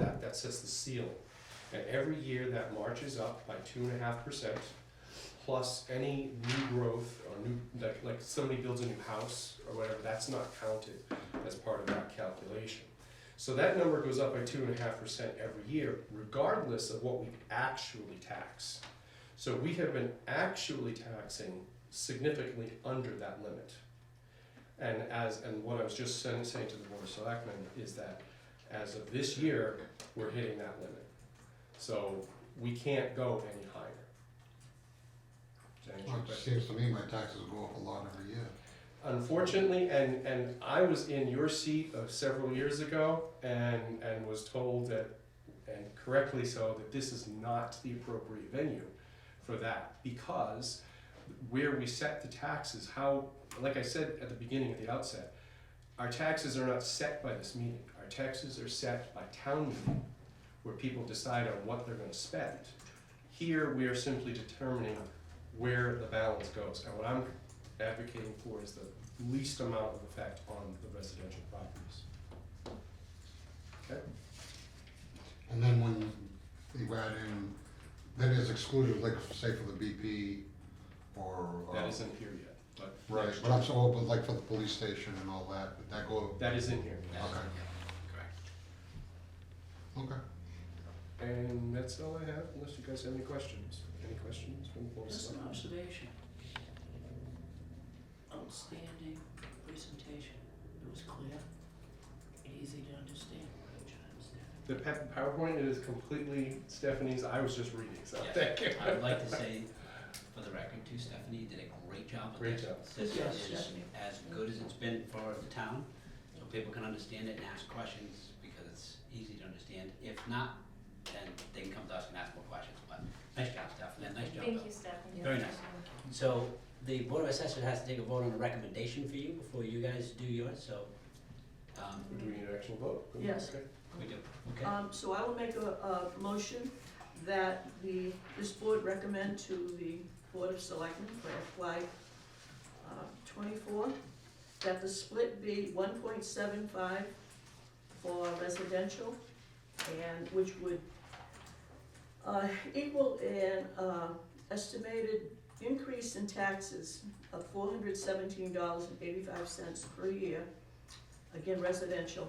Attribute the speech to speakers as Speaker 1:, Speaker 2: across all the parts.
Speaker 1: that sets the seal. And every year that marches up by two and a half percent, plus any new growth or new, like, like somebody builds a new house or whatever, that's not counted as part of that calculation. So that number goes up by two and a half percent every year, regardless of what we actually tax. So we have been actually taxing significantly under that limit. And as, and what I was just saying, saying to the board of selectmen is that as of this year, we're hitting that limit. So we can't go any higher. Does that answer your
Speaker 2: Well, it
Speaker 1: question?
Speaker 2: seems to me my taxes go up a lot every year.
Speaker 1: Unfortunately, and, and I was in your seat of several years ago and, and was told that, and correctly so, that this is not the appropriate venue for that because where we set the taxes, how, like I said at the beginning, at the outset, our taxes are not set by this meeting. Our taxes are set by town meeting, where people decide on what they're gonna spend. Here, we are simply determining where the balance goes. And what I'm advocating for is the least amount of effect on the residential properties.
Speaker 2: And then when you add in, that is excluded, like say for the BP or. uh,
Speaker 1: That isn't here yet, but.
Speaker 2: Right, but I'm so open, like for the police station and all that, would that go,
Speaker 1: That is in here.
Speaker 2: okay,
Speaker 1: Correct.
Speaker 2: okay.
Speaker 1: And that's all I have, unless you guys have any questions. Any questions from the board?
Speaker 3: Just an observation. Outstanding presentation. It was clear and easy to understand, which I understand.
Speaker 1: The pa- PowerPoint is completely Stephanie's, I was just reading, so
Speaker 4: Yeah.
Speaker 1: thank you.
Speaker 4: I would like to say, for the record too, Stephanie did a great job with
Speaker 1: Great
Speaker 4: this.
Speaker 1: job.
Speaker 4: This
Speaker 3: Yes,
Speaker 4: is
Speaker 3: Stephanie.
Speaker 4: as good as it's been for the town, so people can understand it and ask questions, because it's easy to understand. If not, then they can come to us and ask more questions, but nice job, Stephanie, nice job.
Speaker 5: Thank
Speaker 4: Bill.
Speaker 5: you, Stephanie.
Speaker 4: Very nice. So, the Board of Assessors has to take a vote on a recommendation for you before you guys do yours, so, um,
Speaker 1: Do we need an actual vote?
Speaker 3: Yes.
Speaker 1: Okay.
Speaker 4: we do, okay?
Speaker 3: Um, so I will make a, a motion that the, this board recommend to the Board of Selectmen for FY uh, twenty-four, that the split be one point seven five for residential, and which would uh, equal an, uh, estimated increase in taxes of four hundred seventeen dollars and eighty-five cents per year, again residential,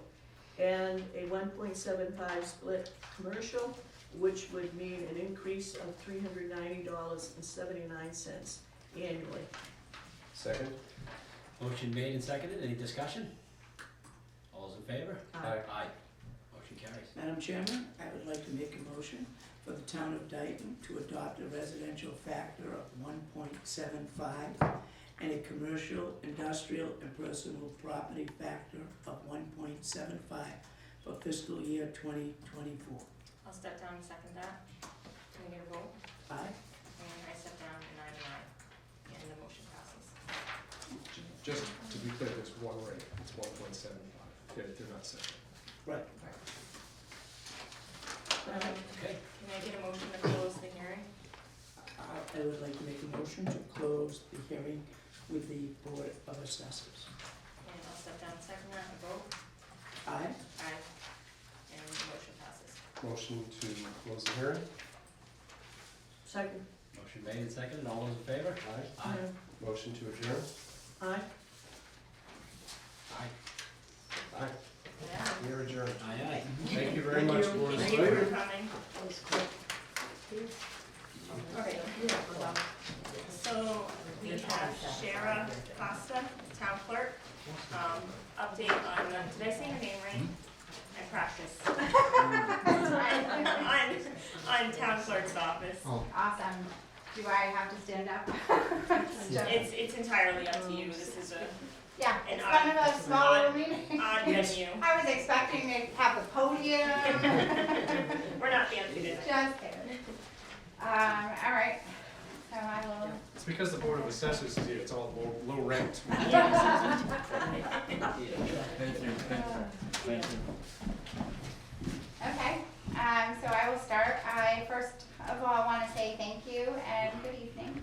Speaker 3: and a one point seven five split commercial, which would mean an increase of three hundred ninety dollars and seventy-nine cents annually.
Speaker 1: Second?
Speaker 4: Motion made and seconded, any discussion? All those in favor?
Speaker 3: Uh,
Speaker 1: Aye.
Speaker 4: Aye. Motion carries.
Speaker 6: Madam Chairman, I would like to make a motion for the town of Dayton to adopt a residential factor of one point seven five and a commercial, industrial, and personal property factor of one point seven five for fiscal year twenty twenty-four.
Speaker 5: I'll step down and second that. Can we get a vote?
Speaker 6: Aye?
Speaker 5: And I step down and I'm an aye. And the motion passes.
Speaker 1: Just to be clear, there's one rate, it's one point seven five, they're, they're not separate.
Speaker 5: Um,
Speaker 6: Right.
Speaker 4: Okay,
Speaker 5: Can I get a motion to close the hearing?
Speaker 6: I- I would like to make a motion to close the hearing with the Board of Assessors.
Speaker 5: And I'll step down and second that and vote.
Speaker 6: Aye?
Speaker 5: Aye. And the motion passes.
Speaker 1: Motion to close the hearing?
Speaker 3: Second,
Speaker 4: motion made and seconded, all those in favor?
Speaker 1: Aye.
Speaker 4: Aye.
Speaker 1: Motion to adjourn?
Speaker 3: aye?
Speaker 4: Aye.
Speaker 1: Aye.
Speaker 5: Yeah.
Speaker 1: We are adjourned.
Speaker 4: Aye, aye.
Speaker 1: Thank you very
Speaker 3: Thank
Speaker 1: much,
Speaker 3: you.
Speaker 1: Board of
Speaker 5: Thank you
Speaker 1: Selectmen.
Speaker 5: for coming. Okay. So we have Shara Costa, town clerk, um, update on, the- did I say your name right? I practiced. On, on town clerk's office.
Speaker 2: Oh,
Speaker 7: Awesome. Do I have to stand up?
Speaker 5: It's, it's entirely up to you, this is a
Speaker 7: Yeah,
Speaker 5: And
Speaker 7: it's one of
Speaker 5: I-
Speaker 7: those smaller
Speaker 5: I-
Speaker 7: meetings.
Speaker 5: odd venue,
Speaker 7: I was expecting to have a podium.
Speaker 5: we're not fancy today.
Speaker 7: Just kidding. Um, all right, so I will.
Speaker 1: It's because the Board of Assessors is here, it's all low, low ranked.
Speaker 7: Okay, um, so I will start. I first of all want to say thank you and good evening.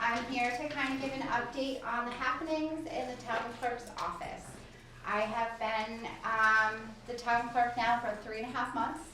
Speaker 7: I'm here to kind of give an update on the happenings in the town clerk's office. I have been, um, the town clerk now for three and a half months,